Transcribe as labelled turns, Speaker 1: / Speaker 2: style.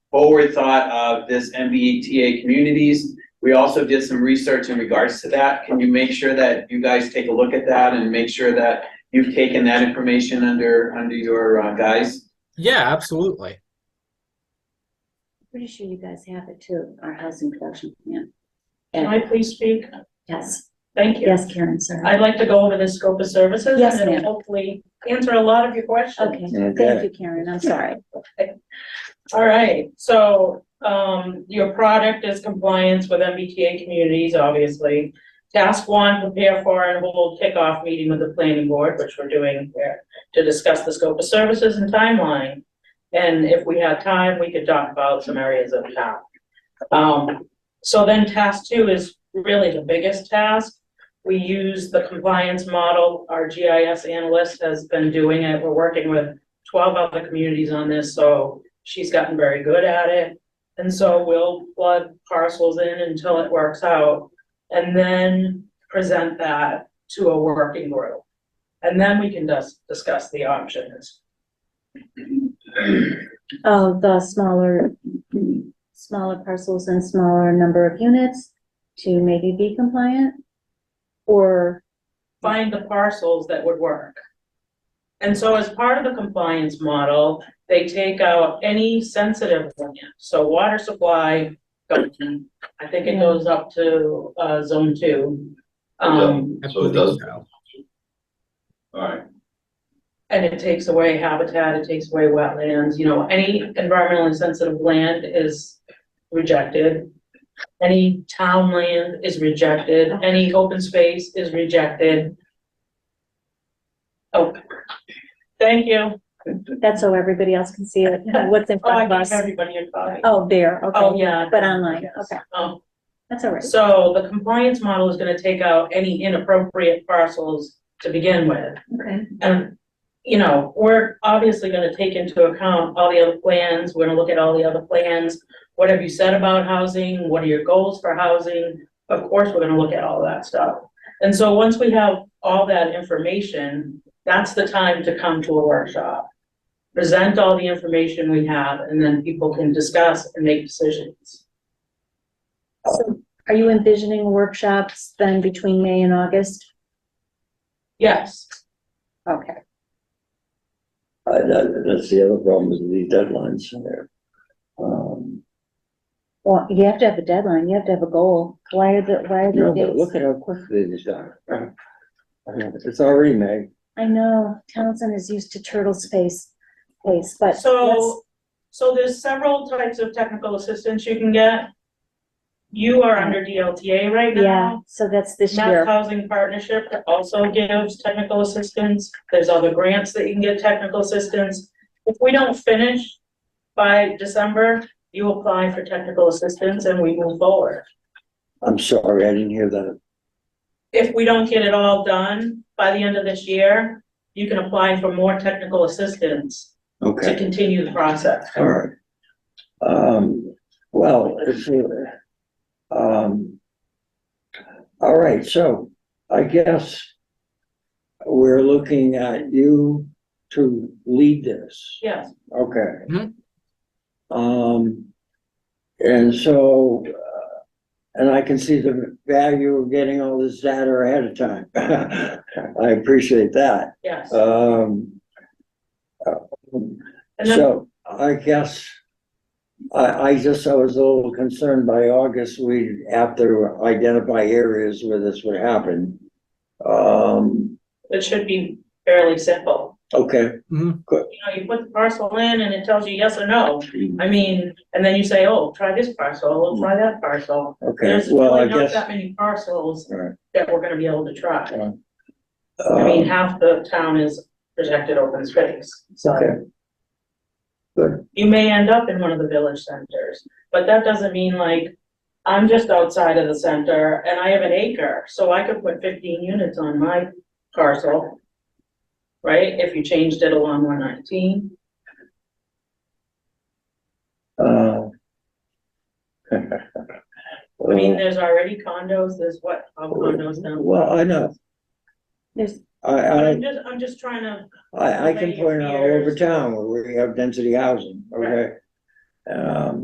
Speaker 1: forward thought of this MBTA communities. We also did some research in regards to that. Can you make sure that you guys take a look at that and make sure that you've taken that information under, under your uh, guise?
Speaker 2: Yeah, absolutely.
Speaker 3: Pretty sure you guys have it too, our housing production plan.
Speaker 4: Can
Speaker 3: And-
Speaker 4: I please speak?
Speaker 3: Yes,
Speaker 4: Thank you.
Speaker 3: yes, Karen, sorry.
Speaker 4: I'd like to go over the scope of services
Speaker 3: Yes,
Speaker 4: and
Speaker 3: ma'am.
Speaker 4: then hopefully answer a lot of your questions.
Speaker 3: Okay,
Speaker 5: Okay.
Speaker 3: thank you, Karen, I'm sorry.
Speaker 4: All right, so, um, your product is compliance with MBTA communities, obviously. Task one, prepare for and hold kickoff meeting with the planning board, which we're doing here, to discuss the scope of services and timeline. And if we had time, we could talk about some areas of town. Um, so then task two is really the biggest task. We use the compliance model, our GIS analyst has been doing it, we're working with twelve other communities on this, so she's gotten very good at it. And so we'll plug parcels in until it works out and then present that to a working group. And then we can dis- discuss the options.
Speaker 3: Oh, the smaller, smaller parcels and smaller number of units to maybe be compliant? Or,
Speaker 4: Find the parcels that would work. And so as part of the compliance model, they take out any sensitive land, so water supply. going- I think it goes up to uh zone two. Um,
Speaker 2: I
Speaker 5: So
Speaker 2: believe
Speaker 5: it doesn't-
Speaker 2: so.
Speaker 5: Alright,
Speaker 4: And it takes away habitat, it takes away wetlands, you know, any environmentally sensitive land is rejected. Any town land is rejected, any open space is rejected. Oh, thank you.
Speaker 3: that's so everybody else can see it, what's in
Speaker 4: Oh, I
Speaker 3: front of
Speaker 4: gave
Speaker 3: us?
Speaker 4: everybody a copy.
Speaker 3: Oh, there,
Speaker 4: Oh,
Speaker 3: okay,
Speaker 4: yeah.
Speaker 3: but online,
Speaker 4: Yes.
Speaker 3: okay,
Speaker 4: Um,
Speaker 3: that's all right.
Speaker 4: so the compliance model is gonna take out any inappropriate parcels to begin with.
Speaker 3: Okay.
Speaker 4: And, you know, we're obviously gonna take into account all the other plans, we're gonna look at all the other plans. What have you said about housing? What are your goals for housing? Of course, we're gonna look at all that stuff. And so once we have all that information, that's the time to come to a workshop. Present all the information we have, and then people can discuss and make decisions.
Speaker 3: So are you envisioning workshops then between May and August?
Speaker 4: Yes,
Speaker 3: Okay,
Speaker 5: I, that, that's the other problem is the deadlines in there. Um,
Speaker 3: well, you have to have a deadline, you have to have a goal. Why are the, why are
Speaker 5: no,
Speaker 3: the
Speaker 5: but
Speaker 3: dates?
Speaker 5: look at how quickly these are. I mean, It's already May,
Speaker 3: I know Townsend is used to turtle space, place, but let's-
Speaker 4: So, so there's several types of technical assistance you can get. You are under DLTA right
Speaker 3: yeah,
Speaker 4: now.
Speaker 3: so that's this
Speaker 4: Mass
Speaker 3: year.
Speaker 4: Housing Partnership also gives technical assistance. There's other grants that you can get technical assistance. If we don't finish by December, you apply for technical assistance and we move forward.
Speaker 5: I'm sorry, I didn't hear that.
Speaker 4: If we don't get it all done by the end of this year, you can apply for more technical assistance to
Speaker 5: Okay,
Speaker 4: continue the process.
Speaker 5: alright. Um, well, if, you- um, alright, so I guess we're looking at you to lead this.
Speaker 4: Yes.
Speaker 5: Okay.
Speaker 2: Mhm.
Speaker 5: Um, and so, uh, and I can see the value of getting all this data ahead of time. I appreciate that.
Speaker 4: Yes,
Speaker 5: Um, uh,
Speaker 4: and then,
Speaker 5: so I guess I, I just, I was a little concerned by August, we'd have to identify areas where this would happen. Um,
Speaker 4: it should be fairly simple.
Speaker 5: okay,
Speaker 4: you know, you put the parcel in and it tells you yes or no. I mean, and then you say, oh, try this parcel, oh, try that parcel.
Speaker 5: okay,
Speaker 4: There's
Speaker 5: well, I
Speaker 4: really not
Speaker 5: guess.
Speaker 4: that many parcels
Speaker 5: all right,
Speaker 4: that we're gonna be able to try. I
Speaker 5: um,
Speaker 4: mean, half the town is protected open space,
Speaker 5: Okay.
Speaker 4: so
Speaker 5: Good,
Speaker 4: you may end up in one of the village centers. But that doesn't mean like, I'm just outside of the center and I have an acre, so I could put fifteen units on my parcel. Right, if you changed it along one nineteen.
Speaker 5: uh.
Speaker 4: I mean, there's already condos, there's what, uh, condos now?
Speaker 5: Well, I know,
Speaker 3: There's,
Speaker 5: I,
Speaker 4: I'm
Speaker 5: I,
Speaker 4: just, I'm just trying to,
Speaker 5: I, I can point out all over town where we have density housing, okay? Um,